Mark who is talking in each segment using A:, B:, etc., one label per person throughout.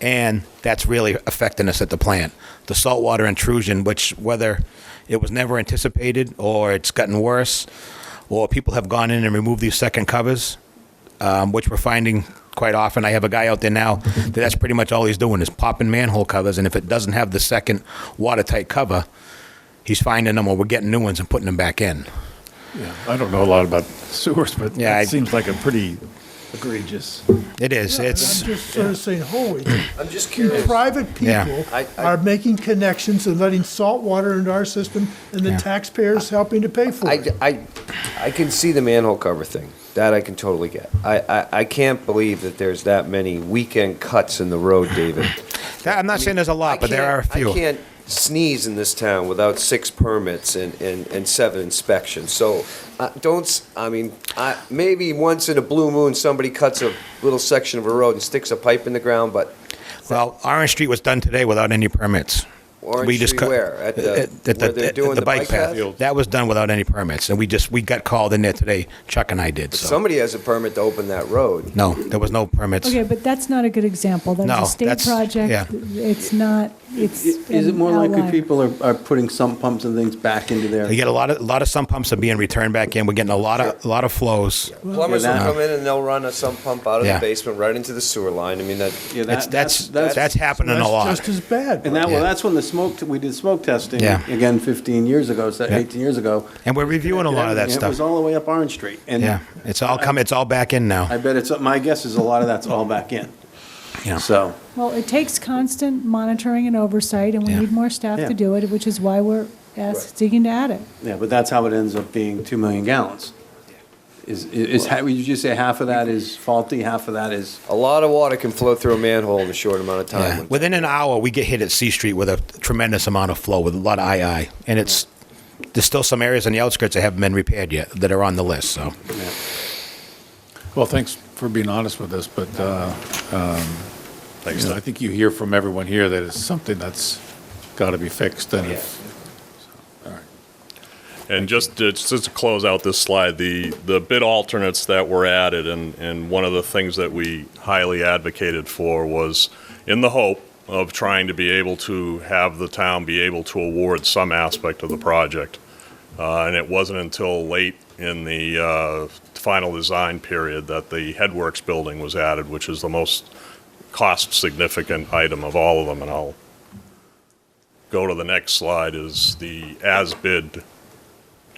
A: and that's really affecting us at the plant. The saltwater intrusion, which whether it was never anticipated or it's gotten worse, or people have gone in and removed these second covers, um, which we're finding quite often. I have a guy out there now that that's pretty much all he's doing is popping manhole covers, and if it doesn't have the second watertight cover, he's finding them or we're getting new ones and putting them back in.
B: Yeah, I don't know a lot about sewers, but
A: Yeah, I-
B: it seems like a pretty egregious.
A: It is. It's
C: I'm just sort of saying, holy,
D: I'm just
C: these
D: curious.
C: private
A: Yeah.
C: people
D: I- I-
C: are making connections and letting salt water into our system, and the
A: Yeah.
C: taxpayers helping to pay for
D: I,
C: it.
D: I, I can see the manhole cover thing. That I can totally get. I, I, I can't believe that there's that many weekend cuts in the road, David.
A: I'm not saying there's a lot,
D: I
A: but there
D: can't-
A: are a few.
D: I can't sneeze in this town without six permits and, and, and seven inspections. So uh, don't, s- I mean, I, maybe once in a blue moon, somebody cuts a little section of a road and sticks a pipe in the ground, but
A: Well, Orange Street was done today without any permits.
D: Orange
A: We just
D: Street
A: cut-
D: where? At the- where they're
A: at
D: doing the bike path?
A: That was done without any permits, and we just, we got called in there today, Chuck and I did, so.
D: somebody has a permit to open that road.
A: No, there was no permits.
E: Okay, but that's not a good example.
A: No,
E: That's a state
A: that's- yeah.
E: project. It's not, it's.
F: Is it
E: an
F: more likely
E: outlier.
F: people are, are putting sump pumps and things back into their?
A: We get a lot of, a lot of sump pumps are being returned back in, we're getting a lot of, a lot of flows.
D: Plumbers will
F: Yeah, that-
D: come in and they'll run a sump pump out of the
A: Yeah.
D: basement right into the sewer line. I mean, that,
F: Yeah,
A: That's,
F: that-
A: that's, that's happening a
C: That's
A: lot.
C: just as bad.
F: And that,
A: Yeah.
F: well, that's when the smoke, t- we did smoke testing,
A: Yeah.
F: again, 15 years ago, so
A: Yeah.
F: 18 years ago.
A: And we're reviewing a lot of that
F: And It was
A: stuff.
F: all the way up Orange Street. and
A: Yeah, it's all come, it's all back in
F: I
A: now.
F: bet it's, my guess is a lot of that's all back in.
A: Yeah.
F: So,
E: Well, it takes constant monitoring and oversight, and we
A: Yeah.
E: need more staff
F: Yeah.
E: to do it, which is why we're asked, digging to add it.
F: yeah, but that's how it ends up being 2 million gallons. Is, is, ha- would you just say half of that is faulty, half of that is?
D: a lot of water can flow through a manhole in a short amount of time.
A: Yeah. Within an hour, we get hit at C Street with a tremendous amount of flow, with a lot of II, and it's, there's still some areas on the outskirts that haven't been repaired yet, that are on the list, so.
B: Well, thanks for being honest with us, but uh, um, you know, I think you hear from everyone here that it's something that's got to be fixed. And if,
G: And just to, just to close out this slide, the, the bid alternates that were added, and, and one of the things that we highly advocated for was in the hope of trying to be able to have the town be able to award some aspect of the project. Uh, and it wasn't until late in the uh, final design period that the headworks building was added, which is the most cost significant item of all of them. And I'll go to the next slide is the as bid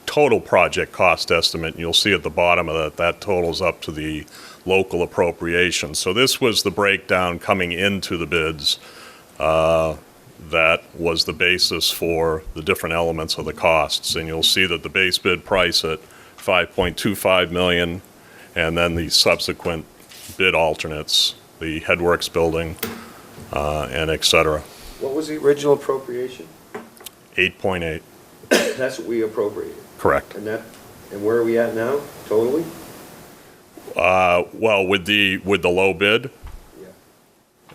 G: total project cost estimate, and you'll see at the bottom of that, that totals up to the local appropriation. So this was the breakdown coming into the bids uh, that was the basis for the different elements of the costs. And you'll see that the base bid price at 5.25 million, and then the subsequent bid alternates, the headworks building, uh, and et cetera,
D: What was the original appropriation?
G: 8.8,
D: That's what we appropriated,
G: correct.
D: and that, and where are we at now, totally?
G: Uh, Well, with the, with the low bid,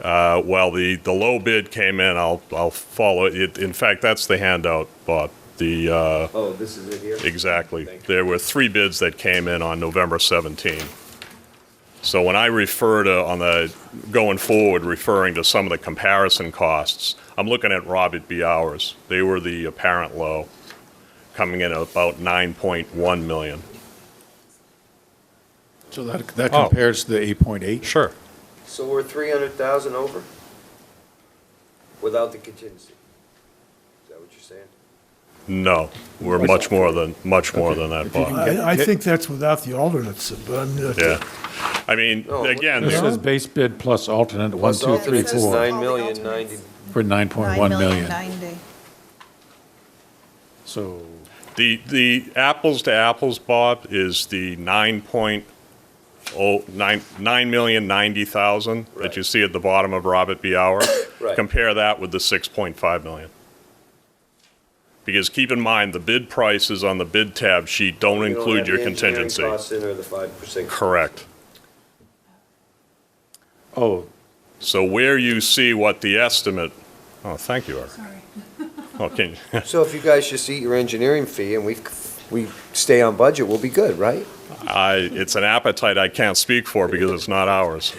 G: Uh, Well, the, the low bid came in, I'll, I'll follow it. In fact, that's the handout, Bob. The, uh,
D: Oh, this is it here?
G: exactly.
D: Thank you.
G: There were three bids that came in on November 17. So when I refer to, on the, going forward, referring to some of the comparison costs, I'm looking at Robert B. Hours. They were the apparent low, coming in at about 9.1 million.
B: so that, that
G: Oh.
B: compares to the 8.8?
G: Sure.
D: So we're three hundred thousand over? Without the contingency? Is that what you're saying?
G: No, we're much more than, much more than that, Bob.
C: I, I think that's without the alternates, but I'm, not-
G: Yeah. I mean,
D: No,
G: again,
B: This
G: there-
B: is base bid plus alternate, one,
D: Plus
B: two, three,
D: alternates is
B: four,
D: nine million ninety.
B: for 9.1 million.
H: 9,090.
B: So,
G: the, the apples to apples, Bob, is the nine point oh, nine, nine million ninety thousand that you
D: Right.
G: see at the bottom of Robert B. Hour.
D: Right.
G: Compare that with the six point five million. Because keep in mind, the bid prices on the bid tab sheet don't
D: You don't
G: include
D: have
G: your
D: the engineering
G: contingency.
D: costs in or the 5%.
G: Correct.
B: oh,
G: So where you see what the estimate, oh, thank you, Eric. Oh, can,
D: So if you guys just eat your engineering fee and we, we stay on budget, we'll be good, right?
G: I, it's an appetite I can't speak for because it's not ours.